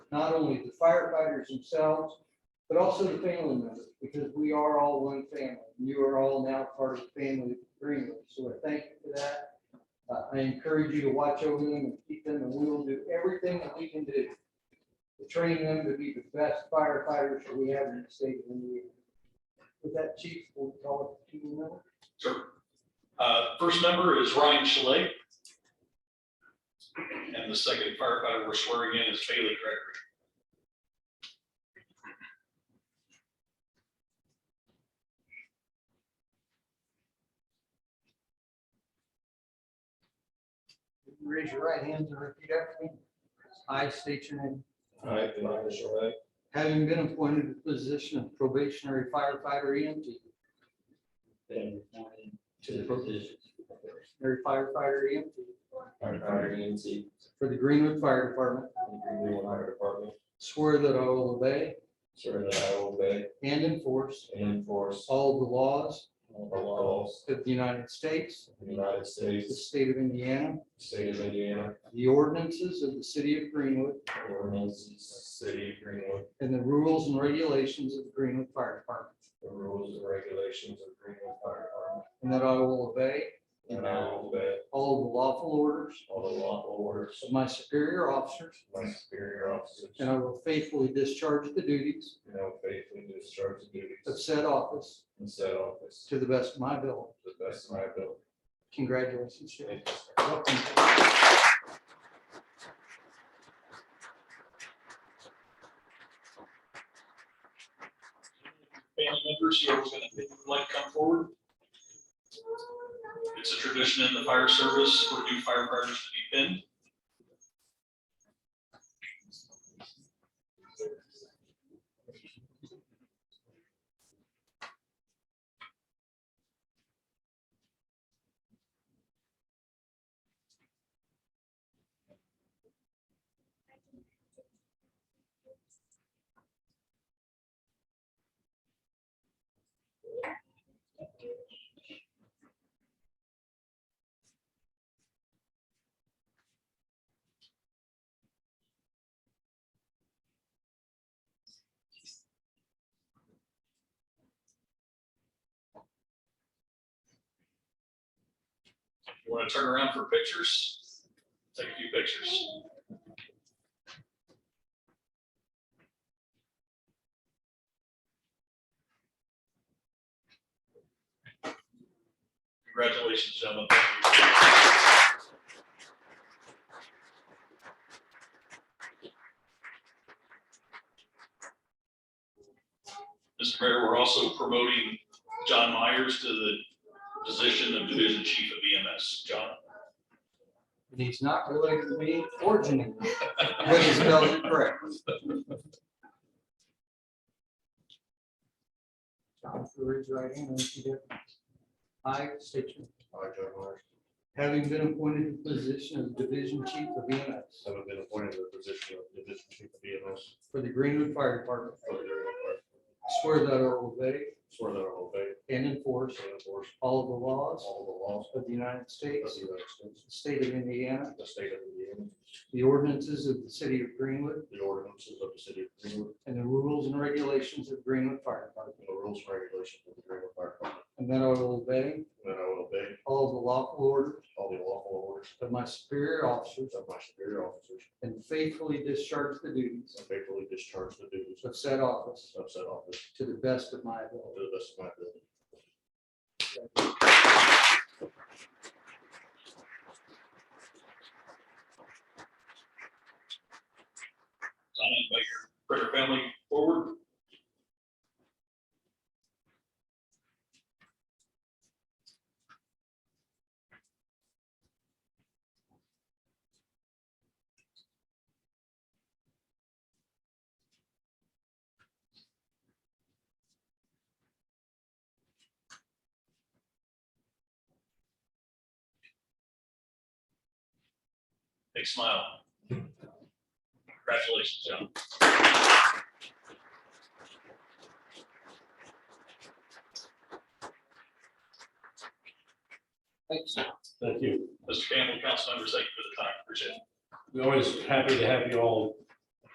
not only the firefighters themselves, but also the family members, because we are all one family. You are all now part of the family of Greenwood, so I thank you for that. Uh, I encourage you to watch over them and keep them, and we will do everything that we can do to train them to be the best firefighters that we have in the state of Indiana. With that, chief, we'll call it to you now. Uh, First member is Ryan Schley. And the second firefighter we're swearing in is Bailey Gregory. Raise your right hand and repeat after me. I state your name. I, Brian Shore, Having been appointed to the position of probationary firefighter E EMT, been appointed um, to the position of or firefighter EMT firefighter EMT for the Greenwood Fire Department, for the Greenville Fire Department. swear that I will obey Swear that I will obey and enforce and enforce all the laws all the laws of the United States, of the United the States, state of Indiana, state of Indiana, the ordinances of the city of Greenwood, ordinances, city of Greenwood, and the rules and regulations of the Greenwood Fire Department, the rules and regulations of Greenville Fire Department. and that I will obey And I will obey all the lawful orders all the lawful orders of my superior officers, of my superior officers. and I will faithfully discharge the duties And I will faithfully discharge the of duties said office in said office to to the best of my ability. the best of my ability. Congratulations, Sheriff. Thank you, sir. Welcome. Family members, who are going to, like, to come forward. It's a tradition in the fire service for new firefighters to be pinned. You want to turn around for pictures? Take a few pictures. Congratulations, gentlemen. Thank you. Mr. Mayor, we're also promoting John Myers to the position of Division Chief of EMS. John? And He's not related to me or Janine, but he spelled it correct. John, if you raise your right hand and repeat after me. I state your name. I, John Myers, Having been appointed to the position of Division Chief of EMS having been appointed to the position of Division Chief of E EMS for the Greenwood Fire Department, for the Greenville Fire Department, swear that I will obey swear that I will obey and enforce and enforce all of the laws all the laws of the United of States, the United States, the state of Indiana, the state of Indiana, the ordinances of the city of Greenwood, the ordinances of the city of Greenwood, and the rules and regulations of Greenwood Fire Department. and the rules and regulations of the Greenville Fire Department. And that I will obey And that I will obey all of the lawful orders all the lawful orders of my superior officers of my superior officers and faithfully discharge the duties and faithfully discharge the duties of said office of said office to the best of my to ability. the best of my ability. I invite your Critter family forward. Big smile. Congratulations, John. Thanks. Thank you. Mr. Campbell, council members, thank you for the time. Appreciate it. We're always happy to have you all